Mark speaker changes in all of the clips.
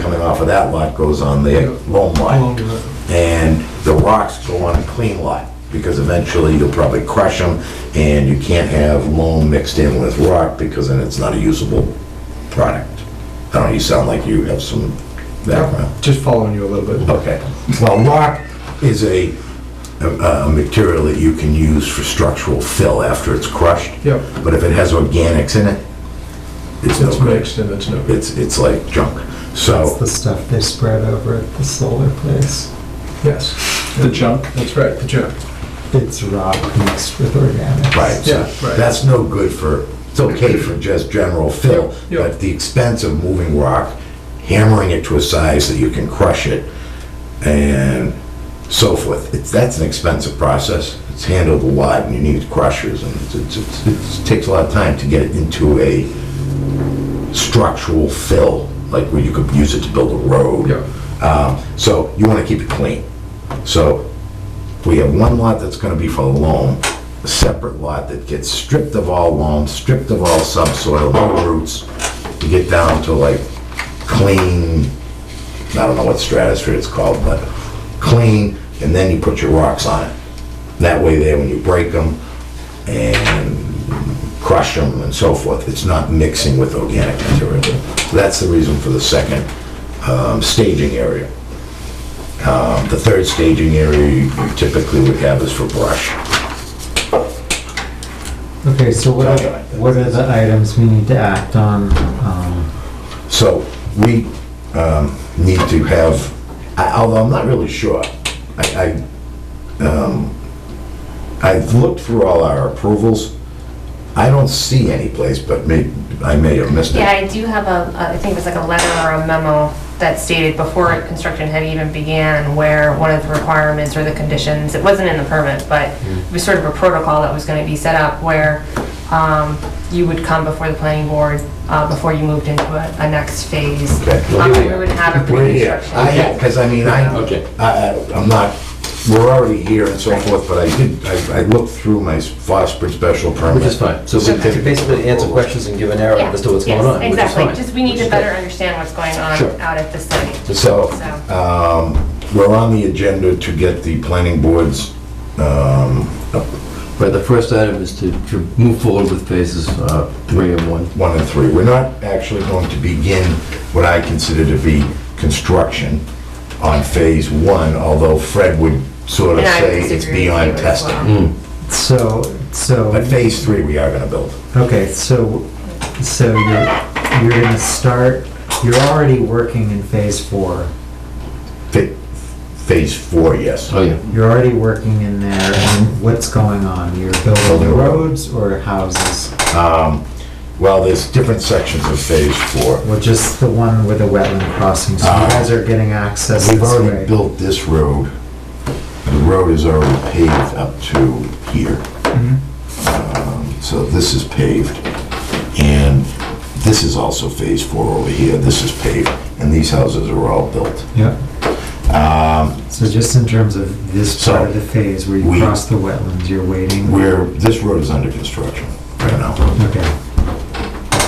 Speaker 1: of that lot goes on the loam lot. And the rocks go on the clean lot, because eventually you'll probably crush them, and you can't have loam mixed in with rock, because then it's not a usable product. I don't know, you sound like you have some background.
Speaker 2: Just following you a little bit.
Speaker 1: Okay. Well, rock is a, a a material that you can use for structural fill after it's crushed.
Speaker 2: Yep.
Speaker 1: But if it has organics in it, it's no
Speaker 2: It's
Speaker 1: good.
Speaker 2: mixed and it's no good.
Speaker 1: It's, it's like junk.
Speaker 3: That's
Speaker 1: So,
Speaker 3: the stuff they spread over at the solar place.
Speaker 2: Yes. The junk. That's right, the junk.
Speaker 3: It's rock mixed with organics.
Speaker 1: right, so
Speaker 2: Yeah, right.
Speaker 1: that's no good for, it's okay for just general fill,
Speaker 2: Yeah, yeah.
Speaker 1: but the expense of moving rock, hammering it to a size that you can crush it, and so forth, it's, that's an expensive process. It's handled a lot, and you need crushers, and it's- it's, it's, it's- it takes a lot of time to get it into a structural fill, like where you could use it to build a road.
Speaker 2: Yeah.
Speaker 1: Um, So you want to keep it clean. So we have one lot that's going to be for loam, a separate lot that gets stripped of all loam, stripped of all subsoil, no roots. You get down to like clean, I don't know what stratosphere it's called, but clean, and then you put your rocks on it. That way there, when you break them and crush them and so forth, it's not mixing with organic material. So That's the reason for the second um, staging area. Um, The third staging area you typically would have is for brush.
Speaker 3: Okay, so what are, what are the items we need to act on? Um,
Speaker 1: So we um, need to have, I- although I'm not really sure, I, I, um, I've looked through all our approvals. I don't see any place, but may, I may have missed
Speaker 4: Yeah,
Speaker 1: it.
Speaker 4: I do have a, I think it was like a letter or a memo that stated before construction had even began where one of the requirements or the conditions, it wasn't in the permit, but
Speaker 5: Mm.
Speaker 4: it was sort of a protocol that was gonna be set up where um, you would come before the planning board, uh, before you moved into a, a next phase.
Speaker 1: Okay.
Speaker 4: Um, We would have a pre-construction.
Speaker 1: I, because I mean, I,
Speaker 5: Okay.
Speaker 1: I- I- I'm not, we're already here and so forth, but I did, I I looked through my Foster special permit.
Speaker 5: Which is fine. So we can basically answer questions and give an arrow
Speaker 4: Yeah,
Speaker 5: as to what's going
Speaker 4: yes,
Speaker 5: on, which is
Speaker 4: Exactly,
Speaker 5: fine.
Speaker 4: just we need
Speaker 5: Which is
Speaker 4: to
Speaker 5: great.
Speaker 4: better understand what's going
Speaker 5: Sure.
Speaker 4: on out at the site.
Speaker 1: So,
Speaker 4: So,
Speaker 1: um, we're on the agenda to get the planning boards, um,
Speaker 5: Right, the first item is to to move forward with phases uh, three and one.
Speaker 1: one and three. We're not actually going to begin what I consider to be construction on phase one, although Fred would sort of
Speaker 4: And I
Speaker 1: say
Speaker 4: would
Speaker 1: it's
Speaker 4: disagree with
Speaker 1: beyond
Speaker 4: you as well.
Speaker 1: testing.
Speaker 5: Hmm.
Speaker 3: So,
Speaker 1: But
Speaker 3: so,
Speaker 1: phase three, we are gonna build.
Speaker 3: okay, so, so you're, you're gonna start, you're already working in phase four.
Speaker 1: Fa- Phase four, yes.
Speaker 5: Oh, yeah.
Speaker 3: You're already working in there, and what's going on? You're building roads or houses?
Speaker 1: Well, there's different sections of phase four.
Speaker 3: Well, just the one with the wetland crossing, so you guys are getting access
Speaker 1: Uh, We've
Speaker 3: this
Speaker 1: already
Speaker 3: way.
Speaker 1: built this road. The road is already paved up to here.
Speaker 3: Mm-hmm.
Speaker 1: Um, So this is paved. And this is also phase four over here. This is paved. And these houses are all built.
Speaker 3: Yep. So just in terms of this
Speaker 1: Um, So,
Speaker 3: part of the phase where
Speaker 1: we-
Speaker 3: you cross the wetlands, you're waiting?
Speaker 1: Where, this road is under construction right now.
Speaker 3: Okay,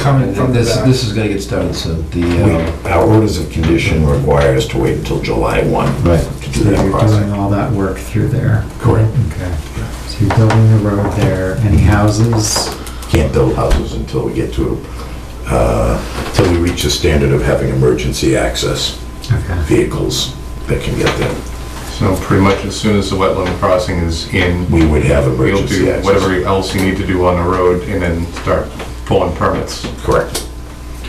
Speaker 2: Coming from the
Speaker 5: This,
Speaker 2: back.
Speaker 5: this is gonna get started, so
Speaker 1: We-
Speaker 5: the, uh,
Speaker 1: Our orders of condition require us to wait until July 1
Speaker 5: right.
Speaker 1: to do
Speaker 3: so
Speaker 1: that
Speaker 3: you're doing
Speaker 1: process.
Speaker 3: all that work through there?
Speaker 1: Correct.
Speaker 3: Okay, so you're building the road there, any houses?
Speaker 1: Can't build houses until we get to, uh, until we reach the standard of having emergency access.
Speaker 3: Okay,
Speaker 1: vehicles that can get there.
Speaker 6: So pretty much as soon as the wetland crossing is in,
Speaker 1: We would have
Speaker 6: you'll
Speaker 1: emergency
Speaker 6: do
Speaker 1: access.
Speaker 6: whatever else you need to do on the road and then start pulling permits.
Speaker 1: Correct.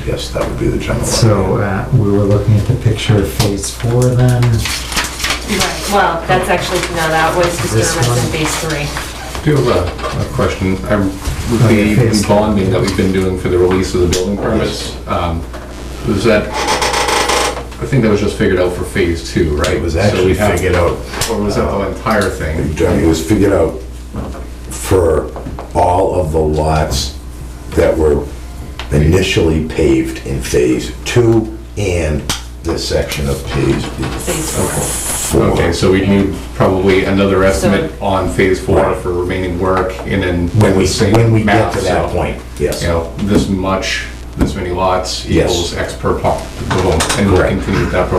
Speaker 1: Yes, that would be the general.
Speaker 3: so
Speaker 1: idea.
Speaker 3: uh, we were looking at the picture of phase four then,
Speaker 4: right, well, that's actually, no, that was
Speaker 3: This
Speaker 4: just gonna
Speaker 3: one?
Speaker 4: rest in phase three.
Speaker 6: Do you have a, a question? I'm, with
Speaker 3: Okay, please.
Speaker 6: the bonding that we've been doing for the release of the building permits, um, was that, I think that was just figured out for phase two, right?
Speaker 1: It was
Speaker 6: So
Speaker 1: actually
Speaker 6: we have-
Speaker 1: figured out,
Speaker 6: Or was that the entire thing?
Speaker 1: it was figured out for all of the lots that were initially paved in phase two and this section of phase
Speaker 4: Phase four.
Speaker 1: four.
Speaker 6: Okay, so we need probably another estimate on phase four
Speaker 1: Right.
Speaker 6: for remaining work and then.
Speaker 1: When we,
Speaker 6: the same
Speaker 1: when we get
Speaker 6: math,
Speaker 1: to
Speaker 6: so-
Speaker 1: that point, yes.
Speaker 6: you know, this much, this many lots
Speaker 1: Yes.
Speaker 6: equals X per pop, boom, and we'll
Speaker 1: Correct.
Speaker 6: continue with that program.